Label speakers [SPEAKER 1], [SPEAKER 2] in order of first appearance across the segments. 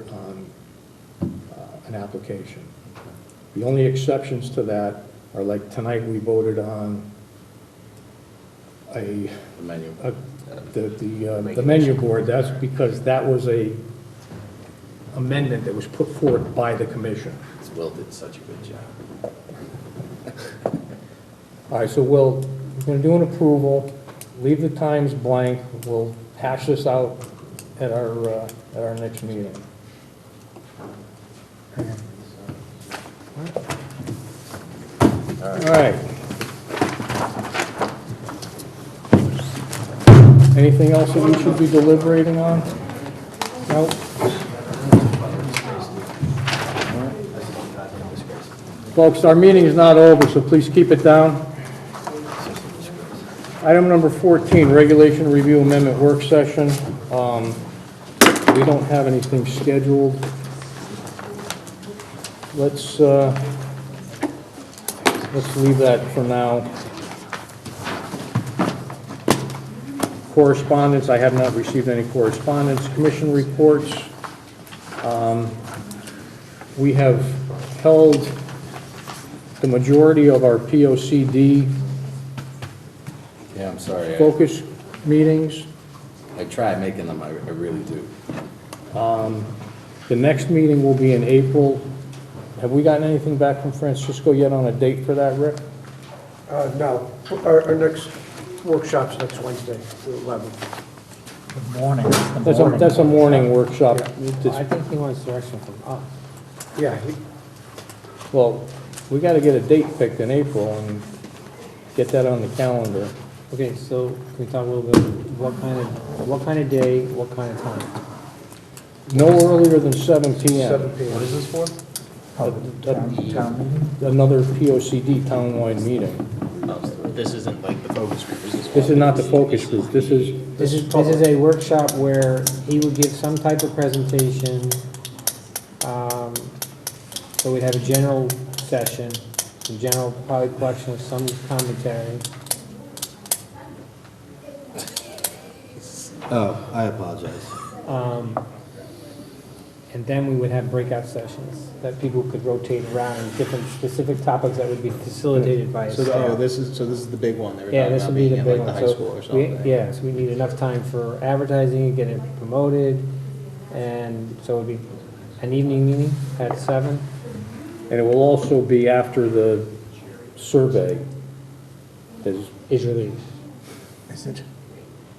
[SPEAKER 1] uh, an application. The only exceptions to that are like tonight, we voted on a,
[SPEAKER 2] the menu.
[SPEAKER 1] a- the, the, uh, the menu board, that's because that was a amendment that was put forth by the commission.
[SPEAKER 2] Will did such a good job.
[SPEAKER 1] All right, so we'll, we're gonna do an approval, leave the times blank, we'll hash this out at our, uh, at our next meeting. All right. Anything else that we should be deliberating on? No? Folks, our meeting is not over, so please keep it down. Item number 14, Regulation Review Amendment Work Session. Um, We don't have anything scheduled. Let's, uh, let's leave that for now. Correspondence, I have not received any correspondence. Commission reports. Um, We have held the majority of our POCD
[SPEAKER 2] Yeah, I'm sorry. I-
[SPEAKER 1] focus meetings.
[SPEAKER 2] I try making them, I I really do.
[SPEAKER 1] The next meeting will be in April. Have we gotten anything back from Francisco yet on a date for that, Rick?
[SPEAKER 3] Uh, No, our, our next workshop's next Wednesday, the 11th.
[SPEAKER 4] Good morning. It's the
[SPEAKER 1] That's a,
[SPEAKER 4] morning.
[SPEAKER 1] that's a morning workshop.
[SPEAKER 5] I think he wants direction from us.
[SPEAKER 3] Yeah, he-
[SPEAKER 1] Well, we gotta get a date picked in April and get that on the calendar.
[SPEAKER 5] Okay, so can we talk a little bit, what kind of, what kind of day, what kind of time?
[SPEAKER 1] No earlier than seven PM.
[SPEAKER 3] 7 PM.
[SPEAKER 2] is this for?
[SPEAKER 4] Public town- town meeting.
[SPEAKER 1] Another POCD townwide meeting.
[SPEAKER 6] Oh, This isn't like the focus group, this is.
[SPEAKER 1] This is not the focus group. This is,
[SPEAKER 5] This is, this is a workshop where he would give some type of presentation. um, So we'd have a general session, a general probably collection of some commentary.
[SPEAKER 7] Oh, I apologize.
[SPEAKER 5] um, And then we would have breakout sessions that people could rotate around and different specific topics that would be facilitated by a
[SPEAKER 6] So,
[SPEAKER 5] staff.
[SPEAKER 6] the- oh, this is, so this is the big one they were
[SPEAKER 5] Yeah,
[SPEAKER 6] talking
[SPEAKER 5] this
[SPEAKER 6] about
[SPEAKER 5] would be
[SPEAKER 6] being
[SPEAKER 5] the
[SPEAKER 6] in
[SPEAKER 5] big
[SPEAKER 6] like
[SPEAKER 5] one.
[SPEAKER 6] the high
[SPEAKER 5] So
[SPEAKER 6] school or
[SPEAKER 5] we-
[SPEAKER 6] something.
[SPEAKER 5] Yes, we need enough time for advertising, get it promoted, and so it'd be an evening meeting at seven.
[SPEAKER 1] and it will also be after the survey is,
[SPEAKER 5] Is released.
[SPEAKER 4] Is it?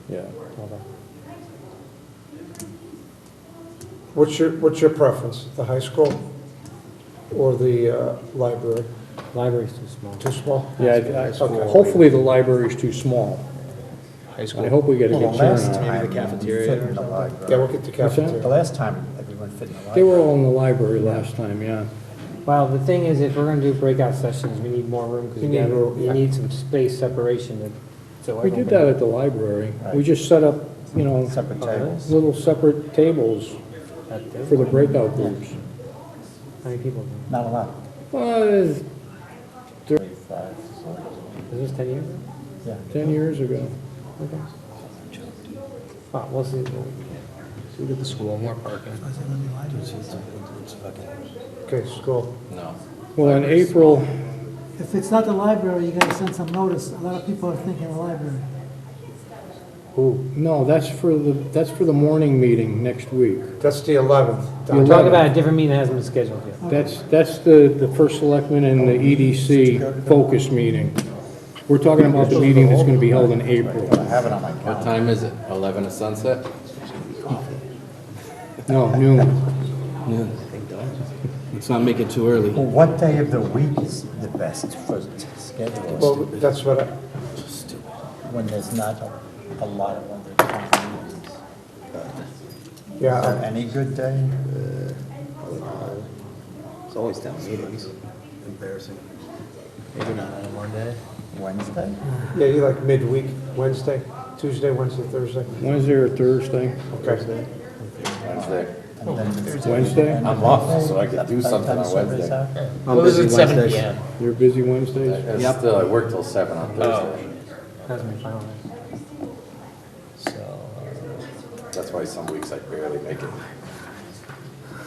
[SPEAKER 1] yeah.
[SPEAKER 5] Hold on.
[SPEAKER 3] What's your, what's your preference, the high school or the uh, library?
[SPEAKER 5] Library's too small.
[SPEAKER 3] Too small?
[SPEAKER 1] Yeah, I- I- hopefully the library's too small.
[SPEAKER 6] High
[SPEAKER 1] I
[SPEAKER 6] school,
[SPEAKER 1] hope we get a
[SPEAKER 4] Well,
[SPEAKER 1] good
[SPEAKER 4] the last
[SPEAKER 1] turnout.
[SPEAKER 4] time
[SPEAKER 6] Maybe the
[SPEAKER 4] we
[SPEAKER 6] cafeteria
[SPEAKER 4] fit in
[SPEAKER 6] or
[SPEAKER 4] the
[SPEAKER 6] something.
[SPEAKER 4] library.
[SPEAKER 3] Yeah, we'll get the
[SPEAKER 4] The
[SPEAKER 3] cafeteria.
[SPEAKER 4] last time, everyone fit in the
[SPEAKER 1] They were
[SPEAKER 4] library.
[SPEAKER 1] all in the library last time, yeah.
[SPEAKER 5] Well, the thing is, if we're gonna do breakout sessions, we need more room, because
[SPEAKER 3] You
[SPEAKER 5] you
[SPEAKER 3] need
[SPEAKER 5] gotta-
[SPEAKER 3] room,
[SPEAKER 5] you
[SPEAKER 3] yeah.
[SPEAKER 5] need some space separation to, so
[SPEAKER 1] We
[SPEAKER 5] everyone.
[SPEAKER 1] did
[SPEAKER 5] can-
[SPEAKER 1] that at the library. We just set up, you know,
[SPEAKER 4] Separate tables.
[SPEAKER 1] little separate tables
[SPEAKER 5] at the-
[SPEAKER 1] for the breakout groups.
[SPEAKER 5] How many people?
[SPEAKER 4] Not a lot.
[SPEAKER 1] Well, it was
[SPEAKER 4] Thirty-five.
[SPEAKER 5] Is this ten years?
[SPEAKER 4] Yeah.
[SPEAKER 1] 10 years ago.
[SPEAKER 5] Okay. Well, we'll see.
[SPEAKER 6] we get the school, more parking.
[SPEAKER 3] Okay, school.
[SPEAKER 2] No.
[SPEAKER 1] Well, in April,
[SPEAKER 8] If it's not the library, you gotta send some notice. A lot of people are thinking the library.
[SPEAKER 1] no, that's for the, that's for the morning meeting next week.
[SPEAKER 3] That's the 11th.
[SPEAKER 1] You're
[SPEAKER 5] We're
[SPEAKER 1] talking
[SPEAKER 5] talking about a different meeting that hasn't been scheduled yet.
[SPEAKER 1] That's, that's the, the first selectman and the EDC focus meeting. We're talking about the meeting that's going to be held in April.
[SPEAKER 4] I have it on my
[SPEAKER 2] What
[SPEAKER 4] calendar.
[SPEAKER 2] time is it? 11 to sunset?
[SPEAKER 1] No, noon.
[SPEAKER 2] Let's not make it too early.
[SPEAKER 4] Well, what day of the week is the best for
[SPEAKER 3] Well,
[SPEAKER 4] scheduling,
[SPEAKER 3] that's what, I-
[SPEAKER 4] when there's not a a lot of other town meetings? Is there
[SPEAKER 3] yeah,
[SPEAKER 4] any good day?
[SPEAKER 6] It's always down meetings. Embarrassing. Maybe not on a Monday.
[SPEAKER 4] Wednesday?
[SPEAKER 3] yeah, you like midweek, Wednesday, Tuesday, Wednesday, Thursday?
[SPEAKER 1] Wednesday or Thursday?
[SPEAKER 3] Okay.
[SPEAKER 2] Wednesday.
[SPEAKER 4] And then-
[SPEAKER 1] Oh, Wednesday?
[SPEAKER 2] I'm off, so I could do something on Wednesday.
[SPEAKER 7] I'm busy Wednesdays.
[SPEAKER 1] You're busy Wednesdays?
[SPEAKER 2] It's still, I work till 7 on Thursday.
[SPEAKER 5] Hasn't been finalized.
[SPEAKER 2] That's why some weeks I barely make it.